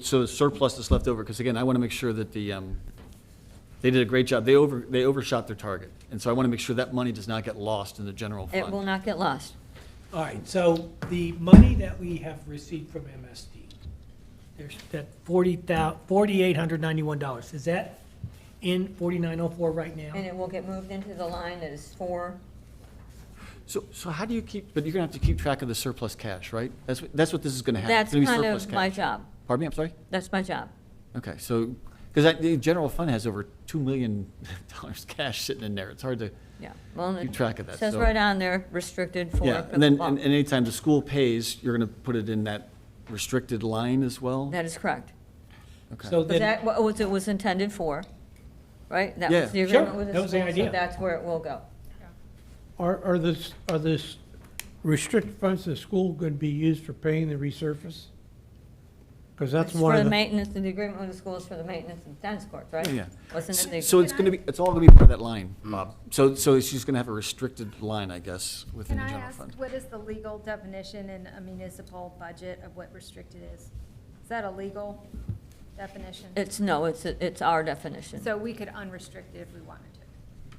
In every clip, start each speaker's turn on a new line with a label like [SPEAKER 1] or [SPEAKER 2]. [SPEAKER 1] So the surplus that's left over, because again, I want to make sure that the, um, they did a great job. They over, they overshot their target. And so I want to make sure that money does not get lost in the general fund.
[SPEAKER 2] It will not get lost.
[SPEAKER 3] All right, so the money that we have received from MSD, there's that forty thou, forty-eight hundred ninety-one dollars, is that in forty-nine oh four right now?
[SPEAKER 2] And it will get moved into the line that is for,
[SPEAKER 1] So, so how do you keep, but you're going to have to keep track of the surplus cash, right? That's, what- that's what this is going to have.
[SPEAKER 2] that's
[SPEAKER 1] It's gonna be
[SPEAKER 2] kind
[SPEAKER 1] surplus
[SPEAKER 2] of my
[SPEAKER 1] cash.
[SPEAKER 2] job.
[SPEAKER 1] Pardon me, I'm sorry?
[SPEAKER 2] That's my job.
[SPEAKER 1] Okay, so, because the general fund has over $2 million cash sitting in there. It's hard to,
[SPEAKER 2] Yeah. Well,
[SPEAKER 1] Keep track of that,
[SPEAKER 2] It says
[SPEAKER 1] so-
[SPEAKER 2] right on there, restricted for.
[SPEAKER 1] yeah.
[SPEAKER 2] for
[SPEAKER 1] And then,
[SPEAKER 2] the
[SPEAKER 1] and and
[SPEAKER 2] ball.
[SPEAKER 1] anytime the school pays, you're going to put it in that restricted line as well?
[SPEAKER 2] That is correct.
[SPEAKER 1] Okay.
[SPEAKER 3] So
[SPEAKER 2] Was
[SPEAKER 3] then,
[SPEAKER 2] that what was- it was intended for, right? That
[SPEAKER 1] Yeah.
[SPEAKER 2] was the agreement
[SPEAKER 3] Sure,
[SPEAKER 2] with the
[SPEAKER 3] that was the
[SPEAKER 2] school, so
[SPEAKER 3] idea.
[SPEAKER 2] that's where it will go.
[SPEAKER 4] Are, are this, are this restricted funds to the school going to be used for paying the resurface? Because that's
[SPEAKER 2] It's
[SPEAKER 4] one
[SPEAKER 2] For
[SPEAKER 4] of
[SPEAKER 2] the
[SPEAKER 4] the,
[SPEAKER 2] maintenance, and the agreement with the schools for the maintenance of tennis courts, right?
[SPEAKER 1] Yeah, yeah.
[SPEAKER 2] Wasn't it the?
[SPEAKER 1] S- So it's going to be, it's all going to be part of that line, Bob. So, so she's going to have a restricted line, I guess, within
[SPEAKER 5] Can
[SPEAKER 1] the
[SPEAKER 5] I
[SPEAKER 1] general
[SPEAKER 5] ask,
[SPEAKER 1] fund.
[SPEAKER 5] what is the legal definition in a municipal budget of what restricted is? Is that a legal definition?
[SPEAKER 2] It's, no, it's, it's our definition.
[SPEAKER 5] So we could unrestrict it if we wanted to?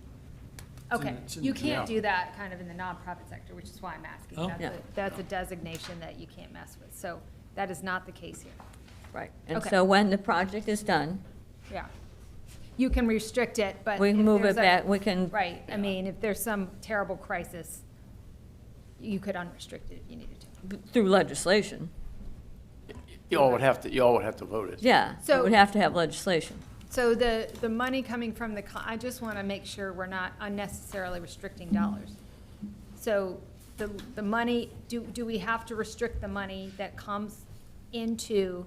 [SPEAKER 1] It's in-
[SPEAKER 5] Okay,
[SPEAKER 1] it's in-
[SPEAKER 5] you
[SPEAKER 1] yeah.
[SPEAKER 5] can't do that kind of in the nonprofit sector, which is why I'm asking.
[SPEAKER 3] Oh.
[SPEAKER 5] That's
[SPEAKER 2] Yeah.
[SPEAKER 5] a- That's a designation that you can't mess with, so that is not the case here.
[SPEAKER 2] Right. And
[SPEAKER 5] Okay.
[SPEAKER 2] so when the project is done,
[SPEAKER 5] Yeah. You can restrict it, but.
[SPEAKER 2] we
[SPEAKER 5] if
[SPEAKER 2] move it
[SPEAKER 5] there's a-
[SPEAKER 2] back, we can.
[SPEAKER 5] Right, I mean, if there's some terrible crisis, you could unrestrict it if you needed to.
[SPEAKER 2] Through legislation,
[SPEAKER 6] You all would have to, you all would have to vote it.
[SPEAKER 2] yeah. So
[SPEAKER 5] So-
[SPEAKER 2] we'd have to have legislation.
[SPEAKER 5] So the, the money coming from the, co- I just want to make sure we're not unnecessarily restricting dollars. So the, the money, do, do we have to restrict the money that comes into,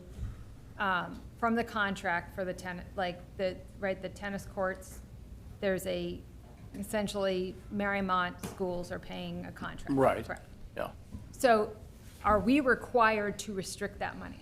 [SPEAKER 5] um, from the contract for the tenant, like the, right, the tennis courts? There's a, essentially, Marymount schools are paying a contract.
[SPEAKER 6] Right.
[SPEAKER 5] Correct.
[SPEAKER 6] Yeah.
[SPEAKER 5] So are we required to restrict that money?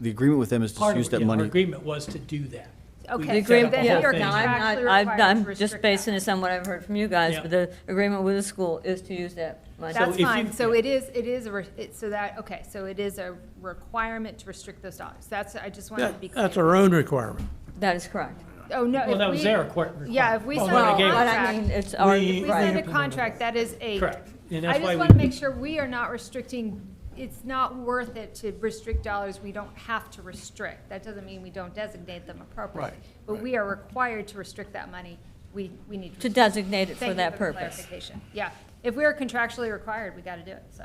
[SPEAKER 1] The agreement with them is to
[SPEAKER 3] part
[SPEAKER 1] use
[SPEAKER 3] of,
[SPEAKER 1] that
[SPEAKER 3] yeah, our
[SPEAKER 1] money.
[SPEAKER 3] agreement was to do that. We
[SPEAKER 5] Okay,
[SPEAKER 3] set
[SPEAKER 5] so
[SPEAKER 3] up a
[SPEAKER 5] then
[SPEAKER 3] whole
[SPEAKER 5] we are
[SPEAKER 3] thing.
[SPEAKER 2] Now, I'm
[SPEAKER 5] contractually
[SPEAKER 2] not,
[SPEAKER 5] required
[SPEAKER 2] I've-
[SPEAKER 5] to
[SPEAKER 2] I'm just
[SPEAKER 5] restrict that.
[SPEAKER 2] basing this on what I've heard from you guys,
[SPEAKER 3] Yeah.
[SPEAKER 2] but the agreement with the school is to use that money.
[SPEAKER 3] So if
[SPEAKER 5] That's
[SPEAKER 3] you-
[SPEAKER 5] fine, so
[SPEAKER 3] yeah.
[SPEAKER 5] it is, it is, a re- it- so that, okay, so it is a requirement to restrict those dollars, that's, I just wanted to be
[SPEAKER 4] that-
[SPEAKER 5] clear.
[SPEAKER 4] that's our own requirement.
[SPEAKER 2] That is correct.
[SPEAKER 5] Oh, no.
[SPEAKER 3] Well,
[SPEAKER 5] if
[SPEAKER 3] that was
[SPEAKER 5] we-
[SPEAKER 3] their requir-
[SPEAKER 5] Yeah, if we
[SPEAKER 3] Well,
[SPEAKER 5] sign
[SPEAKER 3] when
[SPEAKER 5] a
[SPEAKER 3] they gave it-
[SPEAKER 2] But I mean,
[SPEAKER 5] contract,
[SPEAKER 2] it's our,
[SPEAKER 3] We-
[SPEAKER 5] if we sign
[SPEAKER 2] right,
[SPEAKER 5] a contract, that is a.
[SPEAKER 3] Correct, and that's why
[SPEAKER 5] I just
[SPEAKER 3] we-
[SPEAKER 5] want to make sure we are not restricting, it's not worth it to restrict dollars we don't have to restrict. That doesn't mean we don't designate them appropriately.
[SPEAKER 6] Right,
[SPEAKER 5] But we are required to restrict that money, we, we need.
[SPEAKER 2] to
[SPEAKER 5] restrict
[SPEAKER 2] designate it
[SPEAKER 5] Thank
[SPEAKER 2] for
[SPEAKER 5] you
[SPEAKER 2] that
[SPEAKER 5] the
[SPEAKER 2] purpose.
[SPEAKER 5] clarification. Yeah, if we are contractually required, we got to do it, so,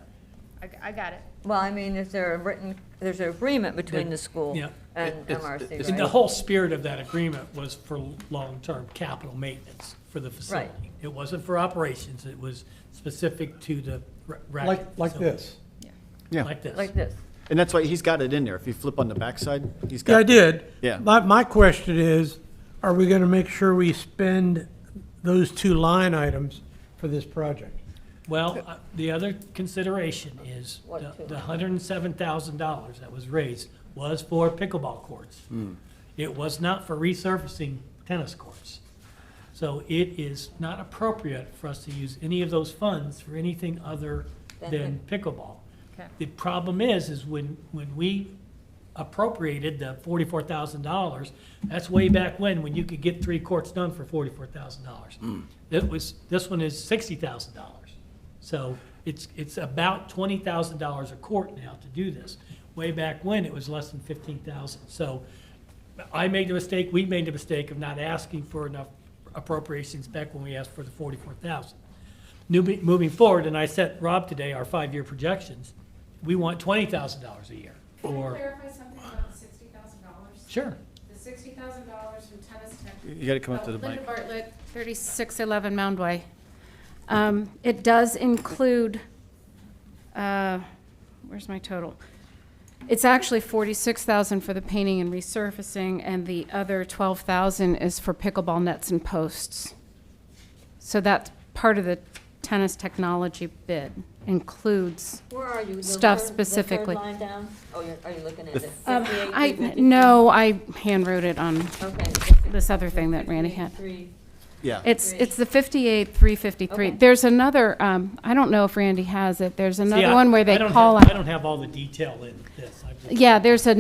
[SPEAKER 5] I, I got it.
[SPEAKER 2] Well, I mean, is there a written, there's an agreement between the school
[SPEAKER 3] Yeah.
[SPEAKER 2] and
[SPEAKER 6] It's-
[SPEAKER 2] MRC,
[SPEAKER 6] it's
[SPEAKER 3] The
[SPEAKER 2] right?
[SPEAKER 3] whole spirit of that agreement was for long-term capital maintenance for the facility. It wasn't for operations, it was specific to the ra- racket.
[SPEAKER 4] Like, like
[SPEAKER 3] So,
[SPEAKER 4] this.
[SPEAKER 1] Yeah,
[SPEAKER 3] Like this.
[SPEAKER 2] Like this.
[SPEAKER 1] and that's why he's got it in there. If you flip on the backside, he's got.
[SPEAKER 4] Yeah, I did.
[SPEAKER 1] Yeah.
[SPEAKER 4] My, my question is, are we going to make sure we spend those two line items for this project?
[SPEAKER 3] Well, uh, the other consideration is
[SPEAKER 2] What
[SPEAKER 3] the-
[SPEAKER 2] two?
[SPEAKER 3] the hundred and seven thousand dollars that was raised was for pickleball courts.
[SPEAKER 4] Hmm.
[SPEAKER 3] It was not for resurfacing tennis courts. So it is not appropriate for us to use any of those funds for anything other
[SPEAKER 2] Than
[SPEAKER 3] than pickleball.
[SPEAKER 5] Okay.
[SPEAKER 3] The problem is, is when, when we appropriated the forty-four thousand dollars, that's way back when, when you could get three courts done for forty-four thousand dollars. It was, this one is sixty thousand dollars. So it's, it's about twenty thousand dollars a court now to do this. Way back when, it was less than fifteen thousand. So I made the mistake, we made the mistake of not asking for enough appropriations back when we asked for the forty-four thousand. Newbie- Moving forward, and I sent Rob today our five-year projections, we want twenty thousand dollars a year,
[SPEAKER 7] Can I
[SPEAKER 3] or,
[SPEAKER 7] clarify something about the sixty thousand dollars?
[SPEAKER 3] sure.
[SPEAKER 7] The sixty thousand dollars from Tennis Tech.
[SPEAKER 1] You got to come up to the mic.
[SPEAKER 7] Oh, Linda Bartlett, thirty-six eleven Mound Way. Um, it does include, uh, where's my total? It's actually forty-six thousand for the painting and resurfacing, and the other twelve thousand is for pickleball nets and posts. So that's part of the tennis technology bid, includes
[SPEAKER 2] Where are you? The
[SPEAKER 7] Stuff
[SPEAKER 2] third- the third
[SPEAKER 7] specifically.
[SPEAKER 2] line down? Oh, you're, are you looking at
[SPEAKER 1] The
[SPEAKER 2] it?
[SPEAKER 7] Um,
[SPEAKER 2] 58,
[SPEAKER 7] I,
[SPEAKER 2] 353?
[SPEAKER 7] no, I handwrote it on
[SPEAKER 2] Okay.
[SPEAKER 7] this other thing that Randy had.
[SPEAKER 2] 353,
[SPEAKER 1] Yeah.
[SPEAKER 7] It's, it's the 58, 353.
[SPEAKER 2] Okay.
[SPEAKER 7] There's another, um, I don't know if Randy has it, there's
[SPEAKER 3] See,
[SPEAKER 7] another
[SPEAKER 3] I-
[SPEAKER 7] one where
[SPEAKER 3] I
[SPEAKER 7] they
[SPEAKER 3] don't
[SPEAKER 7] call
[SPEAKER 3] have- I
[SPEAKER 7] out.
[SPEAKER 3] don't have all the detail in this. I've-
[SPEAKER 7] Yeah, there's another